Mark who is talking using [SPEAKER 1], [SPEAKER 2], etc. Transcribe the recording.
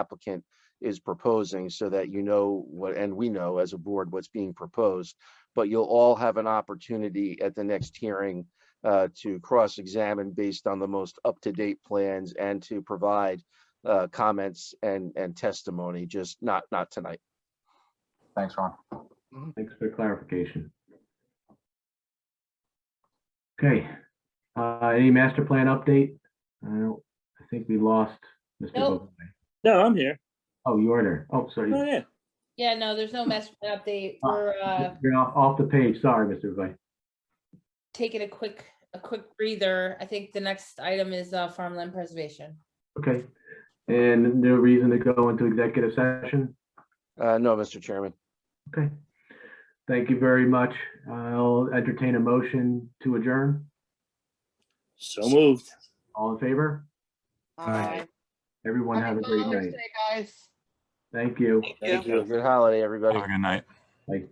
[SPEAKER 1] applicant is proposing so that you know what, and we know as a board what's being proposed. But you'll all have an opportunity at the next hearing uh, to cross-examine based on the most up-to-date plans and to provide uh, comments and, and testimony, just not, not tonight.
[SPEAKER 2] Thanks, Ron.
[SPEAKER 3] Thanks for clarification. Okay, uh, any master plan update? I don't, I think we lost Mr.
[SPEAKER 4] Nope.
[SPEAKER 3] Bovee.
[SPEAKER 5] No, I'm here.
[SPEAKER 3] Oh, you are there. Oh, sorry.
[SPEAKER 5] Oh, yeah.
[SPEAKER 4] Yeah, no, there's no master plan update.
[SPEAKER 3] Ah.
[SPEAKER 4] We're uh,
[SPEAKER 3] You're off, off the page. Sorry, Mr. Bovee.
[SPEAKER 4] taking a quick, a quick breather. I think the next item is uh, farmland preservation.
[SPEAKER 3] Okay, and no reason to go into executive session?
[SPEAKER 1] Uh, No, Mr. Chairman.
[SPEAKER 3] Okay. Thank you very much. I'll entertain a motion to adjourn.
[SPEAKER 5] So moved.
[SPEAKER 3] All in favor?
[SPEAKER 6] Aye.
[SPEAKER 3] Everyone have a great night.
[SPEAKER 6] Guys.
[SPEAKER 3] Thank you.
[SPEAKER 5] Thank you.
[SPEAKER 1] Good holiday, everybody.
[SPEAKER 2] Have a good night.
[SPEAKER 3] Bye.